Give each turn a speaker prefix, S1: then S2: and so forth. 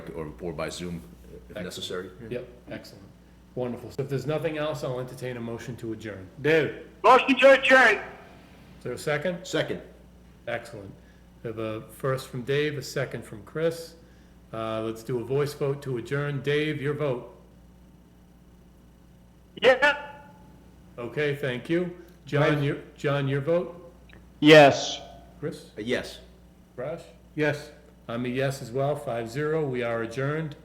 S1: or, or by Zoom if
S2: Excellent.
S1: necessary.
S2: Yep, excellent. Wonderful. So if there's nothing else, I'll entertain a motion to adjourn. Dave, is
S3: Motion to adjourn.
S2: there a second?
S1: Second,
S2: Excellent. We have a first from Dave, a second from Chris. Uh, let's do a voice vote to adjourn. Dave, your vote.
S3: Yeah.
S2: Okay, thank you. John, your, John, your vote?
S3: Yes.
S2: Chris?
S1: yes.
S2: Raj? Yes. I'm a yes as well, five zero. We are adjourned.